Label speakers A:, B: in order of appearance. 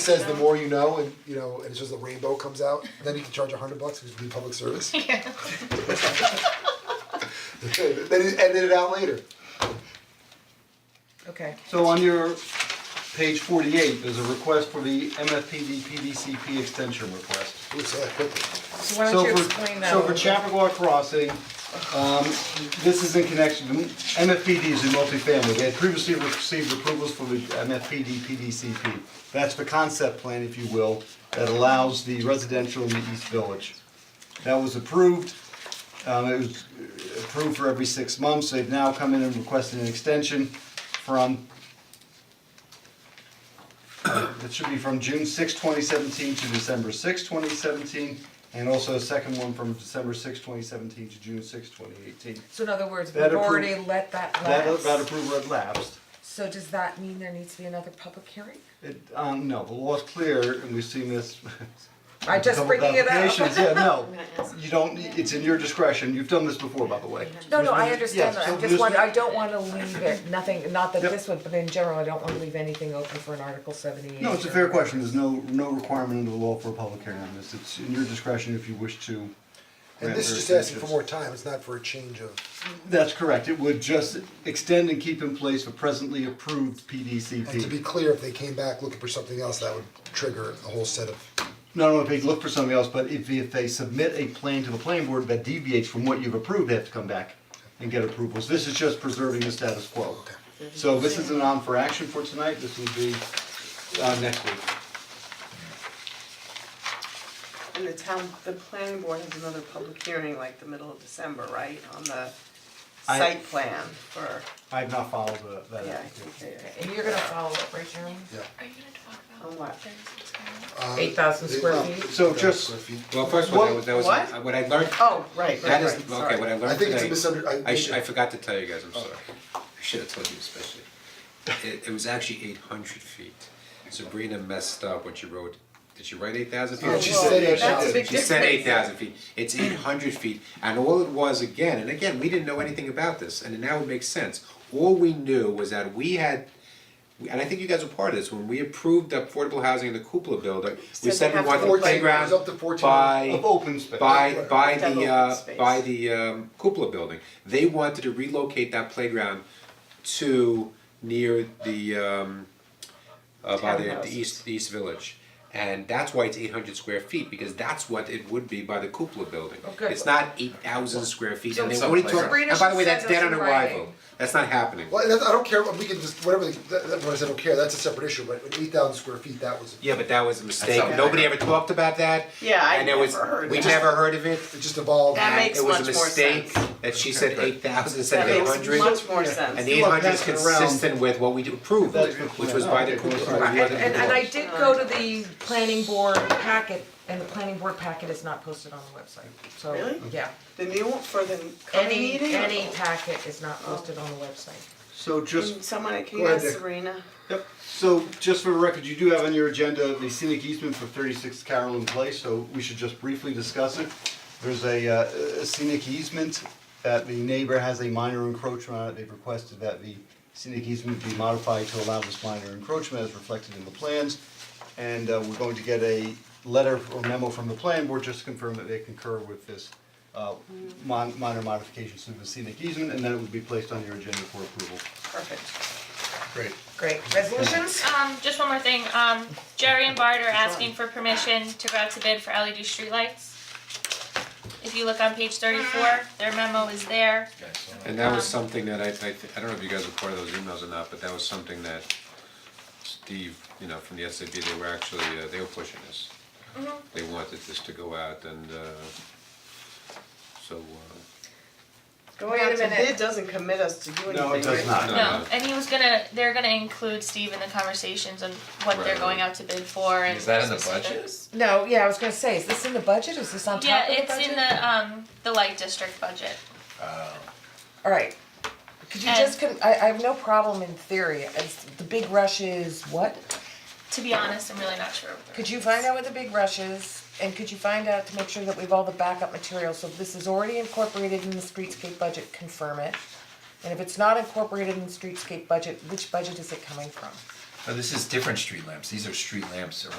A: says the more you know and you know and it's just a rainbow comes out, then you can charge a hundred bucks because we do public service.
B: Yeah.
A: then you edit it out later.
B: Okay.
C: So on your page forty-eight, there's a request for the MFPD PDCP extension request.
A: Ooh, say that quickly.
B: So why don't you explain that? a
C: So for, so for
B: little bit?
C: Chappaqua Crossing, um, this is in connection, MFPD is in multifamily, they had previously received approvals for the MFPD PDCP. That's the concept plan, if you will, that allows the residential in the East Village. That was approved, um, it was approved for every six months, they've now come in and requested an extension from that should be from June 6, 2017 to December 6, 2017, and also a second one from December 6, 2017 to June 6, 2018.
B: So in other words, we've
C: That appro-
B: already let that
C: That,
B: lapse.
C: that approval had lapsed.
B: So does that mean there needs to be another public hearing?
C: It, um, no, the law's clear, and we've seen this.
B: I just
C: Couple
B: bringing it up.
C: applications, Yeah, no, you don't, need- it's in your discretion, you've done this before, by the way.
B: No, no, I
C: There's-
B: understand
C: yeah,
B: that,
C: so
B: I'm just
C: there's-
B: wondering, I don't wanna leave it, nothing, not that
C: Yep.
B: this one, but in general, I don't wanna leave anything open for an Article seventy-eight.
C: No, it's a fair question, there's no, no requirement under the law for a public hearing on this, it's in your discretion if you wish to.
A: And
C: grant
A: this is
C: or
A: just asking for
C: refuse.
A: more time, it's not for a change of
C: That's correct, it would just extend and keep in place the presently approved
A: and to be
C: PDCP.
A: clear, if they came back looking for something else, that would trigger a whole set of
C: Not only if they look for something else, but if if they submit a plan to the planning board that deviates from what you've approved, they have to come back and get approvals, this is just preserving the status quo. So this is an on for action for tonight, this will be uh next week.
D: And the town, the planning board has another public hearing like the middle of December, right, on the
C: I-
D: site plan for,
C: I have not followed the that
D: yeah, I
C: application.
D: think they-
B: And you're gonna follow up, right, Jeremy?
E: Are you gonna talk
D: On
E: about
D: what?
E: Thursday's panel?
A: uh,
B: Eight thousand square
A: well,
B: feet?
C: So just,
F: Well, first of all,
C: What-
F: that was, that was,
D: what?
F: what I learned,
D: Oh, right, right,
F: that
D: right,
F: is,
D: sorry.
F: okay, what I
A: I
F: learned
A: think it's a Oh.
F: today,
A: misunder- I-
F: I sh- I forgot to tell you guys, I'm sorry. I should have told you especially. It, it was actually eight hundred feet. Sabrina messed up when she wrote, did she write eight thousand feet?
A: Yeah, she said
D: Whoa, that's a
A: 8,000.
D: big
F: She said eight
D: difference.
F: thousand feet, it's eight hundred feet, and all it was again, and again, we didn't know anything about this, and now it makes sense. All we knew was that we had, and I think you guys were part of this, when we approved the affordable housing in the cupola building, we
D: Said
F: said
D: they
F: we
D: have
F: wanted
D: to
F: the
D: look like-
F: playground
A: It was up to 14
F: by
C: of open space.
F: by by
D: Have
F: the
D: open
F: uh
D: space.
F: by the um cupola building. They wanted to relocate that playground to near the um uh by the the
D: Townhouses.
F: east the east village. And that's why it's eight hundred square feet, because that's what it would be by the cupola building.
D: Oh,
B: Okay.
F: It's not eight thousand square feet and they
B: So-
F: already took,
B: Sabrina
F: and by the
B: should
F: way, that's
B: send us
F: dead on
B: in
F: arrival,
B: writing.
F: that's not happening.
A: Well, that, I don't care, we can just, whatever, the- that, that, when I said I don't care, that's a separate issue, but eight thousand square feet, that was,
F: Yeah, but that was a mistake,
D: not-
F: nobody ever talked about that.
D: Yeah, I
F: And there was,
D: never heard
F: we
D: that.
F: never heard of it.
A: it just evolved.
D: That makes much more
F: It was a
D: sense.
F: mistake that she said eight thousand instead
D: That
F: of eight hundred.
D: makes much more sense.
F: And eight hundred is
C: That's around-
F: consistent with what we approved,
C: That's what-
F: which was by the
C: Okay,
F: Cooper.
C: sorry.
B: And and and I did go to the planning board packet, and the planning board packet is not posted on the website, so, yeah.
D: Really? The new one for the coming
B: Any,
D: meeting?
B: any packet is not posted on the website.
C: so just
D: Can Someone, can
A: Go
D: you
A: ahead,
D: ask
A: Dick.
D: Serena?
C: Yep, so just for the record, you do have on your agenda the scenic easement for thirty-six Carolyn Place, so we should just briefly discuss it. There's a uh, a scenic easement that the neighbor has a minor encroachment on it, they've requested that the scenic easement be modified to allow this minor encroachment as reflected in the plans. And uh, we're going to get a letter or memo from the plan board just to confirm that they concur with this uh mon- minor modifications to the scenic easement, and then it would be placed on your agenda for approval.
D: Perfect.
C: Great.
B: Great, resolutions?
E: Um, just one more thing, um, Jerry and Bart are asking for permission to go out to bid for LED streetlights. If you look on page thirty-four, their memo is there,
F: And that was
D: um,
F: something that I, I, thi- I don't know if you guys were part of those emails or not, but that was something that Steve, you know, from the SAB, they were actually, uh, they were pushing this.
D: Mm-hmm.
F: They wanted this to go out and, uh, so, uh,
D: Going out to bid doesn't commit us to do anything,
C: No, it does
D: right?
C: not.
E: no, and he was gonna, they're gonna include Steve in the conversations on what they're
F: Right.
E: going out to bid for and
G: Is that in the budget?
E: specifics.
B: No, yeah, I was gonna say, is this in the budget, is this on top
E: Yeah,
B: of the budget?
E: it's in the, um, the light district budget.
B: Alright, could you
E: And-
B: just, con- I I have no problem in theory, it's, the big rush is what?
E: To be honest, I'm really not sure.
B: Could you find out what the big rush is, and could you find out to make sure that we've all the backup material, so if this is already incorporated in the streetscape budget, confirm it? And if it's not incorporated in the streetscape budget, which budget is it coming from?
G: Oh, No, this is different street lamps, these are street lamps around